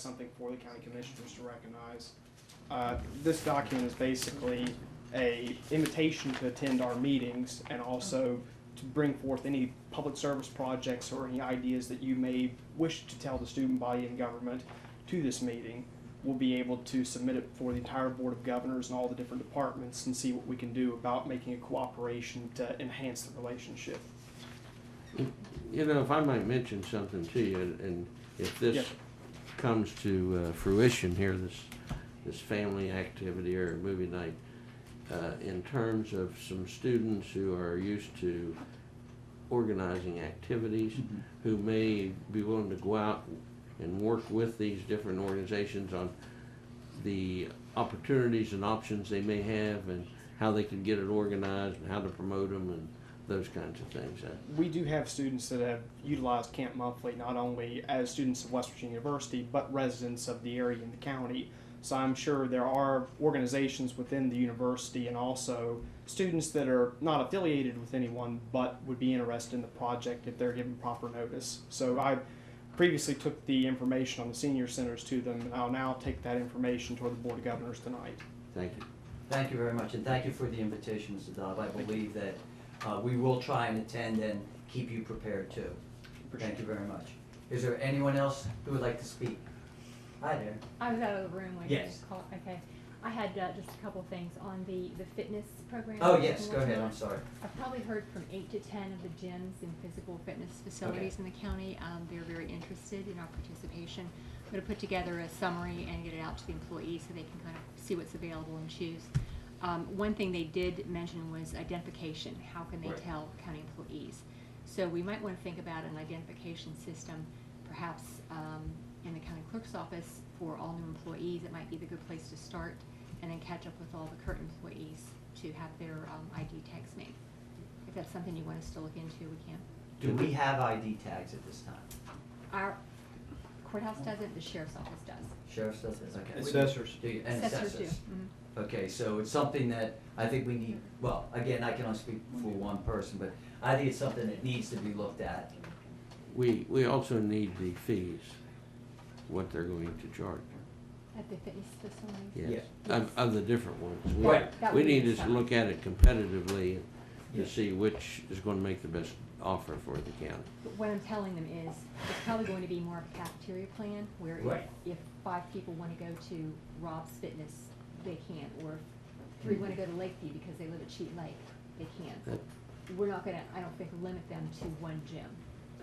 something for the county commissioners to recognize. Uh, This document is basically a invitation to attend our meetings and also to bring forth any public service projects or any ideas that you may wish to tell the student body and government to this meeting. We'll be able to submit it for the entire Board of Governors and all the different departments and see what we can do about making a cooperation to enhance the relationship. You know, if I might mention something to you, and- and if Yeah. this comes to uh, fruition here, this, this family activity or movie night, uh, in terms of some students who are used to organizing activities, who may be willing to go out and work with these different organizations on the opportunities and options they may have and how they can get it organized and how to promote them and those kinds of things. Uh, we do have students that have utilized Camp Monthly not only as students of West Virginia University, but residents of the area and the county. So I'm sure there are organizations within the university and also students that are not affiliated with anyone but would be interested in the project if they're given proper notice. So I previously took the information on the senior centers to them, and I'll now take that information toward the Board of Governors tonight. Thank you. Thank you very much, and thank you for the invitation, Mr. Dodd. I believe that uh, we will try and attend and keep you prepared too. Thank you very much. Is there anyone else who would like to speak? Hi there. I was out of the room when Yes. you called. Okay. I had uh, just a couple things on the, the fitness program. Oh, that yes, go we're ahead, working on. I'm sorry. I've probably heard from eight to ten of the gyms and physical fitness facilities in the county. Um, they're very interested in our participation. I'm going to put together a summary and get it out to the employees so they can kind of see what's available and choose. Um, one thing they did mention was identification. How can they Right. tell county employees? So we might want to think about an identification system, perhaps um, in the county clerk's office for all new employees. It might be the good place to start, and then catch up with all the current employees to have their um, ID tags made. If that's something you want us to look into, we can. Do we have ID tags at this time? Our courthouse does it, the sheriff's office does. Sheriff's does it, okay. Assessors. Do you, and Assessors do. assessors? Mhm. Okay, so it's something that I think we need, well, again, I can only speak for one person, but I think it's something that needs to be looked at. We, we also need the fees, what they're going to charge, At the fitness facility. yes, of, of the different ones. We- Right. That We would be need to fun. look at it competitively Yeah. to see which is gonna make the best offer for the county. But what I'm telling them is, it's probably going to be more of a cafeteria plan, where Right. if, if five people wanna go to Rob's Fitness, they can, or if three wanna go to Lakeview because they live at Sheet Lake, they can. That- We're not gonna, I don't think, limit them to one gym.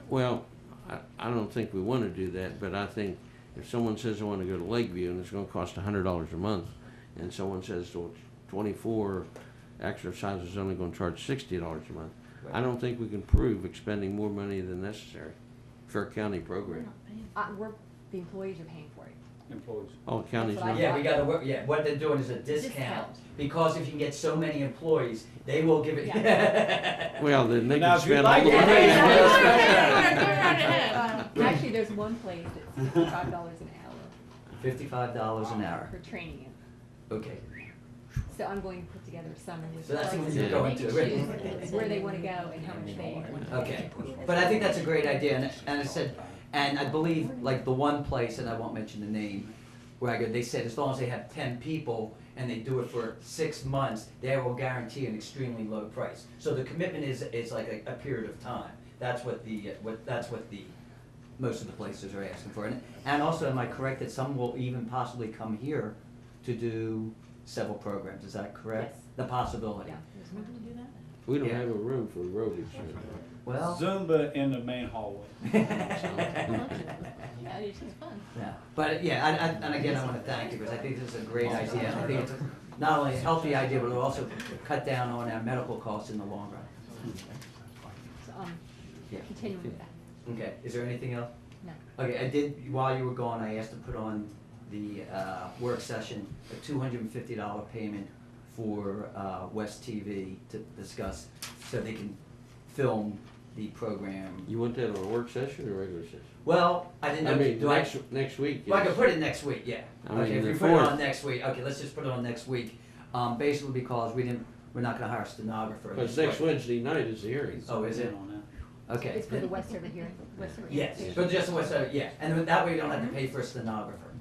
Well, I, I don't think we wanna do that, but I think if someone says they wanna go to Lakeview and it's gonna cost a hundred dollars a month, and someone says, well, twenty-four exercise is only gonna charge sixty dollars a month, I don't think we can prove expending more money than necessary for a county program. Uh, we're, the employees are paying for it. Employees. Oh, county's That's what I not. Yeah, we gotta, work. yeah, what they're doing is a discount, Discount. because if you can get so many employees, they will give it. Well, then they Now, can if you'd spend all like the to- Uh, Actually, there's one place that's fifty-five dollars an hour Fifty-five dollars an hour, for training. okay. So I'm going to put together a summary with. So that's prices, what you're and going they can to, choose Where they wanna go and how much they want. to Okay, pay. but I think that's a great idea, and, and I said, and I believe, like, the one place, and I won't mention the name, where I go, they said as long as they have ten people and they do it for six months, they will guarantee an extremely low price. So the commitment is, is like a, a period of time, that's what the, uh, what, that's what the, most of the places are asking for. And, and also, am I correct that some will even possibly come here to do several programs, is that correct? Yes. The possibility? Yeah, there's one. We don't Yeah. have a room for aerobics. here. Well. Zumba in the main hallway. Yeah, it's just fun. Yeah, but yeah, I, I, and again, I wanna thank you, because I think this is a great idea, I think it's not only a healthy idea, but it'll also cut down on our medical costs in the long run. So, um, Yeah. continuing with that, Okay, is there anything else? no. Okay, I did, while you were gone, I asked to put on the, uh, work session, a two hundred and fifty dollar payment for, uh, West TV to discuss, so they can film the program. You want that on a work session or regular session? Well, I didn't I know, mean, do I? next, next week. Well, I yes. can put it next week, yeah. I mean, Okay, if the we put it on fourth. next week, okay, let's just put it on next week, um, basically because we didn't, we're not gonna hire a stenographer. Because next Wednesday night is the hearing. Oh, is it? On Okay. It's for the Westover here, Westover. area. Yes, but just the West Side, yeah, and that way you don't have to pay for a stenographer.